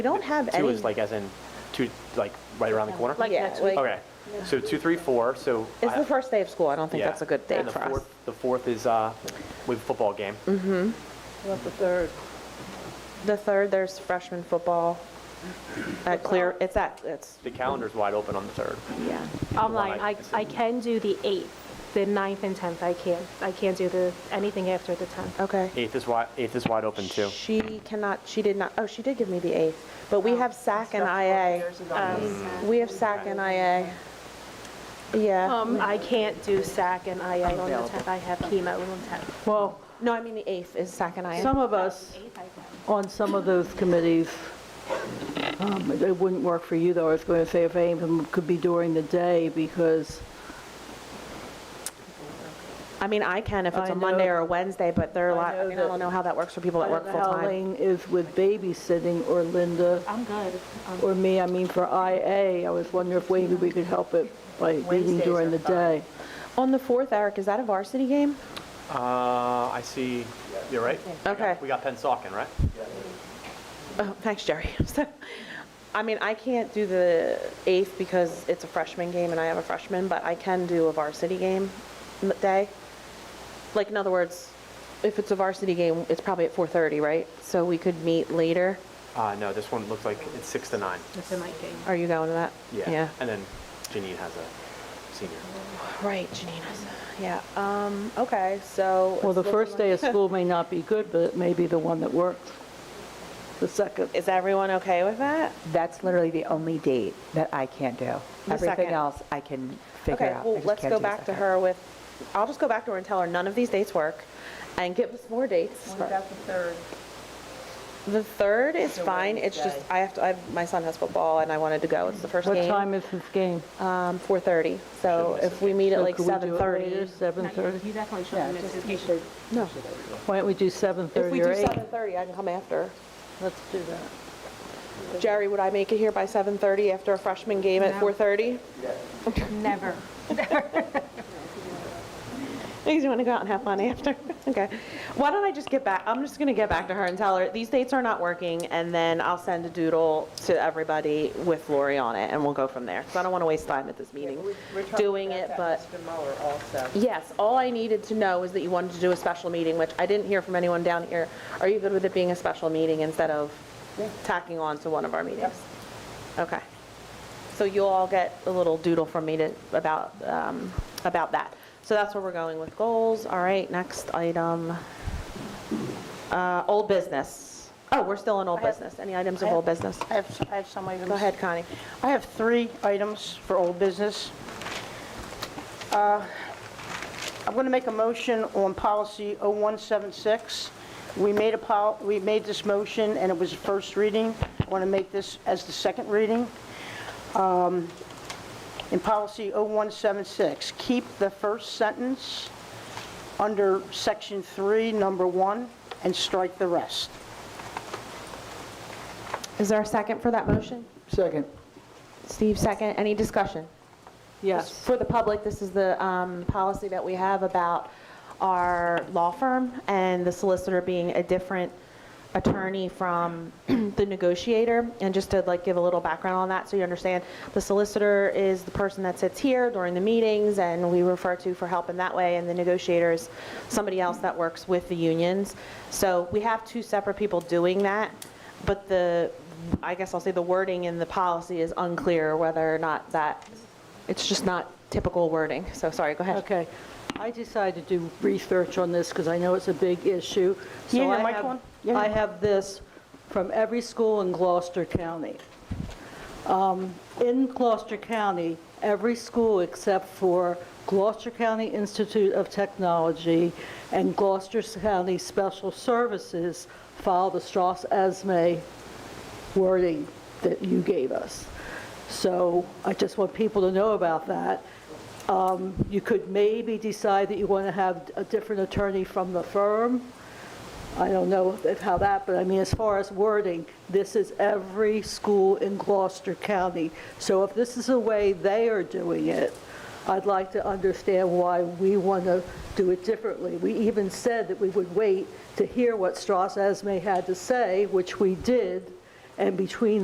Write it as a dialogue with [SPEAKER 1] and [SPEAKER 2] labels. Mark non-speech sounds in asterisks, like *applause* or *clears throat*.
[SPEAKER 1] We don't have
[SPEAKER 2] Two
[SPEAKER 1] any,
[SPEAKER 2] is like as in, two, like right around the corner?
[SPEAKER 3] Like
[SPEAKER 1] Yeah,
[SPEAKER 3] next week.
[SPEAKER 1] like-
[SPEAKER 2] Okay, so two, three, four, so.
[SPEAKER 1] it's
[SPEAKER 2] I-
[SPEAKER 1] the first day of school, I don't think
[SPEAKER 2] yeah.
[SPEAKER 1] that's a good day
[SPEAKER 2] And the
[SPEAKER 1] for us. Mm-hmm.
[SPEAKER 2] fourth- The fourth is, uh, we have a football game.
[SPEAKER 3] About the third.
[SPEAKER 1] The third, there's freshman football at Clear, it's at, it's,
[SPEAKER 2] The calendar's wide open on the third.
[SPEAKER 1] yeah.
[SPEAKER 3] I'm
[SPEAKER 2] July.
[SPEAKER 3] lying, I, I can do the 8th, the ninth and 10th, I can't, I can't do the, anything after the 10th.
[SPEAKER 1] Okay.
[SPEAKER 2] Eighth is wide, eighth is wide open too.
[SPEAKER 1] She cannot, she did not, oh, she did give me the 8th, but we have SAC and IA. We have SAC and IA. Yeah,
[SPEAKER 3] Um, I can't do SAC and IA on the 10th, I have chemo on the 10th.
[SPEAKER 4] Well,
[SPEAKER 1] no, I mean the 8th is SAC and IA.
[SPEAKER 4] some of us on some of those committees, um, it wouldn't work for you though, I was going to say if any of them could be during the day because,
[SPEAKER 1] I mean, I can if it's
[SPEAKER 4] I
[SPEAKER 1] a Monday
[SPEAKER 4] know-
[SPEAKER 1] or a Wednesday, but there are a
[SPEAKER 4] I
[SPEAKER 1] lot, I
[SPEAKER 4] know
[SPEAKER 1] mean, I
[SPEAKER 4] that-
[SPEAKER 1] don't know how that works for people
[SPEAKER 4] I
[SPEAKER 1] that
[SPEAKER 4] don't
[SPEAKER 1] work
[SPEAKER 4] know how
[SPEAKER 1] full-time.
[SPEAKER 4] Elaine is with babysitting or Linda
[SPEAKER 3] I'm good.
[SPEAKER 4] or me, I mean for IA, I was wondering if maybe we could help it by meeting during the day.
[SPEAKER 1] On the 4th, Eric, is that a varsity game?
[SPEAKER 2] Uh, I see, you're right. We got-
[SPEAKER 1] Okay.
[SPEAKER 2] We got Pensacon, right?
[SPEAKER 1] Oh, thanks, Jerry. *laughs* So, I mean, I can't do the 8th because it's a freshman game and I have a freshman, but I can do a varsity game m- day. Like, in other words, if it's a varsity game, it's probably at 4:30, right? So we could meet later.
[SPEAKER 2] Uh, no, this one looks like it's six to nine.
[SPEAKER 3] That's in my game.
[SPEAKER 1] Are you going to that?
[SPEAKER 2] *laughs* Yeah. And then Janine has a senior.
[SPEAKER 1] Right, Janina's, yeah. Um, okay, so.
[SPEAKER 4] Well, the
[SPEAKER 1] it's
[SPEAKER 4] first
[SPEAKER 1] looking
[SPEAKER 4] day of school may not be good, but it may be the one that works, the second.
[SPEAKER 1] like- Is everyone okay with that?
[SPEAKER 5] That's literally the only date that I can't do.
[SPEAKER 1] The
[SPEAKER 5] Everything
[SPEAKER 1] second.
[SPEAKER 5] else I can figure
[SPEAKER 1] Okay,
[SPEAKER 5] out. I
[SPEAKER 1] well,
[SPEAKER 5] just
[SPEAKER 1] let's
[SPEAKER 5] can't
[SPEAKER 1] go
[SPEAKER 5] do the
[SPEAKER 1] back to
[SPEAKER 5] second.
[SPEAKER 1] her with, I'll just go back to her and tell her none of these dates work and give us more dates.
[SPEAKER 6] the third?
[SPEAKER 1] The third is fine, it's just,
[SPEAKER 6] Wednesday.
[SPEAKER 1] I have to, I, my son has football and I wanted to go, it's the first
[SPEAKER 4] What
[SPEAKER 1] game.
[SPEAKER 4] time is this game?
[SPEAKER 1] Um, 4:30, so
[SPEAKER 2] Shouldn't miss
[SPEAKER 1] if we meet at
[SPEAKER 4] So
[SPEAKER 1] like
[SPEAKER 4] could we do it
[SPEAKER 1] 7:30.
[SPEAKER 4] later, 7:30?
[SPEAKER 3] You definitely shouldn't miss his game.
[SPEAKER 1] No,
[SPEAKER 4] Why don't we do
[SPEAKER 1] if we
[SPEAKER 4] 7:30
[SPEAKER 1] do
[SPEAKER 4] or 8?
[SPEAKER 1] 7:30, I can come after.
[SPEAKER 4] Let's do that.
[SPEAKER 1] Jerry, would I make it here by 7:30 after a freshman game at 4:30?
[SPEAKER 3] Never.
[SPEAKER 1] Because you want to go out and have fun after. *laughs* Okay. Why don't I just get back, I'm just going to get back to her and tell her, these dates are not working, and then I'll send a doodle to everybody with Lori on it, and we'll go from there. Because I don't want to waste time at this meeting doing it, but.
[SPEAKER 6] Mr. Muller also.
[SPEAKER 1] Yes, all I needed to know is that you wanted to do a special meeting, which I didn't hear from anyone down here. Are you good with it being a special meeting instead of tacking on to one of our meetings? Okay. So you'll all get a little doodle from me to, about, um, about that. So that's where we're going with goals. All right, next item. Uh, Old business. Oh, we're still in old
[SPEAKER 7] I have-
[SPEAKER 1] business. Any items
[SPEAKER 7] I
[SPEAKER 1] of
[SPEAKER 7] have-
[SPEAKER 1] old business?
[SPEAKER 7] I have, s- I have some items.
[SPEAKER 1] Go ahead, Connie.
[SPEAKER 7] I have three items for old business. Uh, I'm going to make a motion on policy 0176. We made a pol, we made this motion, and it was the first reading. I want to make this as the second reading. Um, In policy 0176, keep the first sentence under section three, number one, and strike the rest.
[SPEAKER 1] Is there a second for that motion?
[SPEAKER 4] Second.
[SPEAKER 1] Steve, second. Any discussion? Just
[SPEAKER 4] Yes.
[SPEAKER 1] For the public, this is the um, policy that we have about our law firm and the solicitor being a different attorney from *clears throat* the negotiator. And just to like give a little background on that, so you understand, the solicitor is the person that sits here during the meetings and we refer to for help in that way, and the negotiator is somebody else that works with the unions. So we have two separate people doing that, but the, I guess I'll say the wording in the policy is unclear whether or not that it's just not typical wording, so sorry, go ahead.
[SPEAKER 4] Okay. I decided to do research on this because I know it's a big issue. So
[SPEAKER 7] Yeah, yeah,
[SPEAKER 4] I
[SPEAKER 7] Mike,
[SPEAKER 4] have-
[SPEAKER 7] one. Yeah,
[SPEAKER 4] I
[SPEAKER 7] yeah.
[SPEAKER 4] have this from every school in Gloucester County. Um, In Gloucester County, every school except for Gloucester County Institute of Technology and Gloucester County Special Services filed a E Strauss-Esme wording that you gave us. So I just want people to know about that. Um, You could maybe decide that you want to have a different attorney from the firm. I don't know if- how that, but I mean, as far as wording, this is every school in Gloucester County. So if this is the way they are doing it, I'd like to understand why we want to do it differently. We even said that we would wait to hear what Strauss Esme had to say, which we did, and between